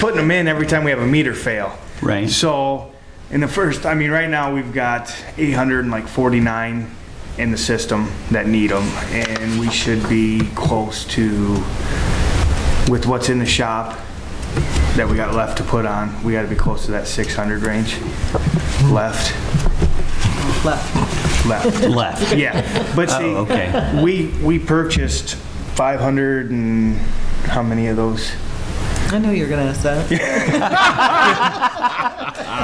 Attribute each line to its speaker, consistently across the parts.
Speaker 1: putting them in every time we have a meter fail.
Speaker 2: Right.
Speaker 1: So, in the first, I mean, right now, we've got 849 in the system that need them, and we should be close to, with what's in the shop that we got left to put on, we gotta be close to that 600 range left,
Speaker 3: left.
Speaker 1: left.
Speaker 2: left.
Speaker 1: Yeah, but see,
Speaker 2: Oh, okay.
Speaker 1: we, we purchased 500 and, how many of those?
Speaker 3: I knew you were gonna ask that.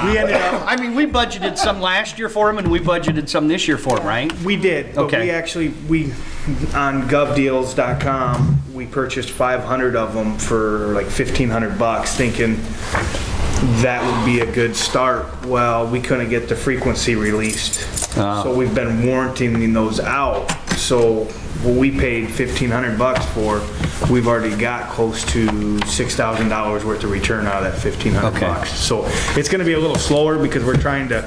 Speaker 1: We ended up,
Speaker 2: I mean, we budgeted some last year for them, and we budgeted some this year for them, right?
Speaker 1: We did, but
Speaker 2: Okay.
Speaker 1: we actually, we, on govdeals.com, we purchased 500 of them for like 1,500 bucks, thinking that would be a good start. Well, we couldn't get the frequency released,
Speaker 2: Ah.
Speaker 1: so we've been warranting those out. So what we paid 1,500 bucks for, we've already got close to $6,000 worth of return out of that 1,500
Speaker 2: Okay.
Speaker 1: bucks. So it's gonna be a little slower because we're trying to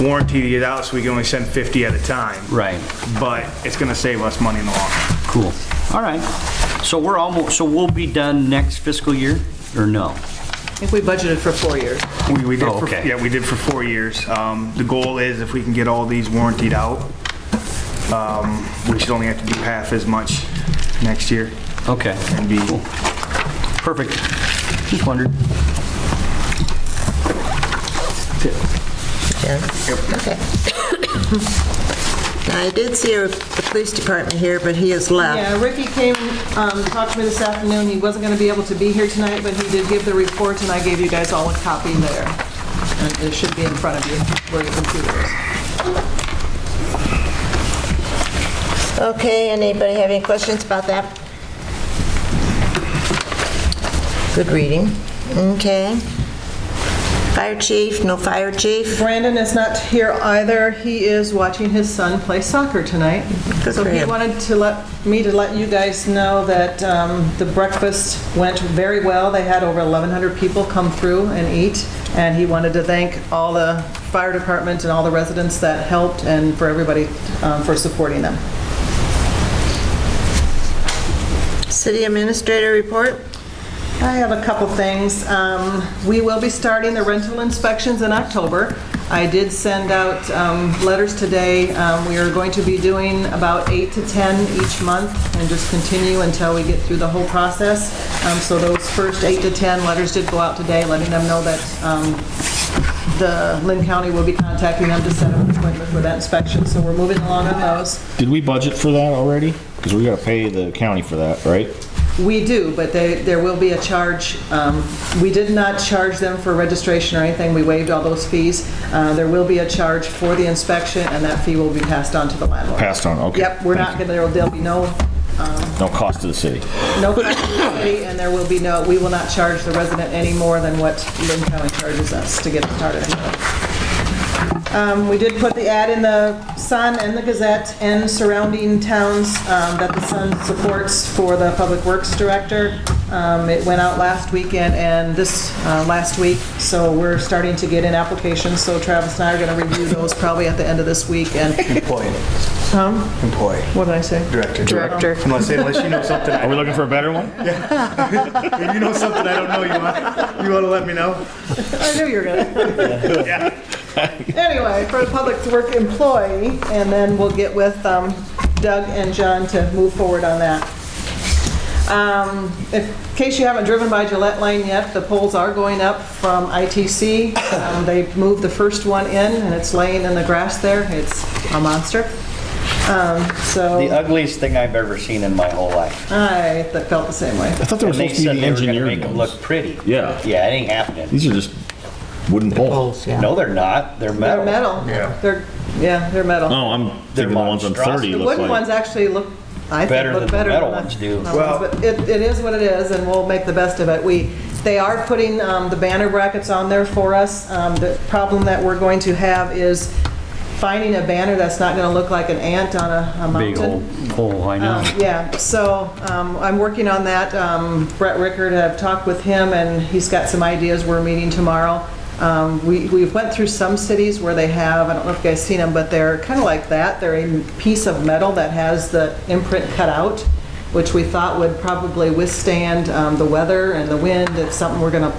Speaker 1: warranty it out so we can only send 50 at a time.
Speaker 2: Right.
Speaker 1: But it's gonna save us money in the long run.
Speaker 2: Cool. All right. So we're almost, so we'll be done next fiscal year, or no?
Speaker 3: I think we budgeted for four years.
Speaker 1: We, we did
Speaker 2: Oh,
Speaker 1: for,
Speaker 2: okay.
Speaker 1: yeah, we did for four years. Um, the goal is if we can get all these warrantied out, um, we should only have to do half as much next year
Speaker 2: Okay.
Speaker 1: and be,
Speaker 2: Cool. Perfect. Just wondered.
Speaker 4: Sharon? Okay. Now, I did see a- the police department here, but he has left.
Speaker 3: Yeah, Ricky came, um, talked to me this afternoon, he wasn't gonna be able to be here tonight, but he did give the report, and I gave you guys all a copy there. And it should be in front of you, where your computer is.
Speaker 4: Okay, anybody have any questions about that? Good reading. Okay. Fire chief, no fire chief?
Speaker 3: Brandon is not here either. He is watching his son play soccer tonight.
Speaker 4: Good
Speaker 3: So
Speaker 4: for
Speaker 3: he
Speaker 4: him.
Speaker 3: wanted to let, me to let you guys know that um, the breakfast went very well. They had over 1,100 people come through and eat, and he wanted to thank all the fire department and all the residents that helped and for everybody um, for supporting them.
Speaker 4: City administrator report?
Speaker 3: I have a couple things. Um, We will be starting the rental inspections in October. I did send out um, letters today. Um, We are going to be doing about eight to 10 each month and just continue until we get through the whole process. Um, So those first eight to 10 letters did go out today, letting them know that um, the Lynn County will be contacting them to set up an appointment for that inspection. So we're moving along on those.
Speaker 5: Did we budget for that already? Because we gotta pay the county for that, right?
Speaker 3: We do, but they, there will be a charge. Um, We did not charge them for registration or anything, we waived all those fees. Uh, There will be a charge for the inspection, and that fee will be passed on to the landlord.
Speaker 5: Passed on, okay.
Speaker 3: Yep, we're not,
Speaker 5: Thank you.
Speaker 3: gonna. there'll there'll be no,
Speaker 5: No cost to the city.
Speaker 3: no cost to the city, and there will be no, we will not charge the resident any more than what Lynn County charges us to get it started. Um, We did put the ad in the Sun and the Gazette and surrounding towns um, that the Sun supports for the Public Works Director. Um, It went out last weekend and this uh, last week, so we're starting to get in applications. So Travis and I are going to review those probably at the end of this week. And,
Speaker 1: employee,
Speaker 3: Tom,
Speaker 1: employee,
Speaker 3: what did I say?
Speaker 1: director. Director. Unless, unless you know something,
Speaker 5: Are
Speaker 1: I-
Speaker 5: we looking for a better one?
Speaker 1: if you know something I don't know, you want, you wanna let me know?
Speaker 3: I knew you were gonna. Anyway, for the public to work employee, and then we'll get with um, Doug and John to move forward on that. Um, if- In case you haven't driven by Gillette Lane yet, the poles are going up from ITC. Um, They moved the first one in, and it's laying in the grass there. It's a monster. Um,
Speaker 6: The
Speaker 3: So
Speaker 6: ugliest thing I've ever seen in my whole life.
Speaker 3: I th- felt the same way.
Speaker 5: I thought there was
Speaker 6: And they
Speaker 5: supposed to
Speaker 6: said
Speaker 5: be
Speaker 6: they were gonna
Speaker 5: engineering
Speaker 6: make them
Speaker 5: ones.
Speaker 6: look pretty.
Speaker 5: Yeah.
Speaker 6: Yeah, it ain't happening.
Speaker 5: These are just wooden poles.
Speaker 6: No, they're not. They're
Speaker 3: They're
Speaker 6: metal.
Speaker 3: metal.
Speaker 1: Yeah.
Speaker 3: They're, yeah, they're metal.
Speaker 5: Oh, I'm
Speaker 6: They're
Speaker 5: thinking the ones on
Speaker 6: monstrous.
Speaker 5: 30
Speaker 3: The
Speaker 5: look
Speaker 3: wooden ones
Speaker 5: like.
Speaker 3: actually look, I
Speaker 6: Better
Speaker 3: think, look
Speaker 6: than the
Speaker 3: better than
Speaker 6: metal
Speaker 3: the
Speaker 6: ones do.
Speaker 3: metal ones, But it, it is what it is, and we'll make the best of it. We, they are putting um, the banner brackets on there for us. Um, The problem that we're going to have is finding a banner that's not going to look like an ant on a a mountain.
Speaker 2: Big old pole, I
Speaker 3: Um,
Speaker 2: know.
Speaker 3: Yeah, so um, I'm working on that. Um, Brett Rickard, I've talked with him, and he's got some ideas. We're meeting tomorrow. Um, We we went through some cities where they have, I don't know if you guys seen them, but they're kind of like that. They're a piece of metal that has the imprint cut out, which we thought would probably withstand um, the weather and the wind. It's something we're going to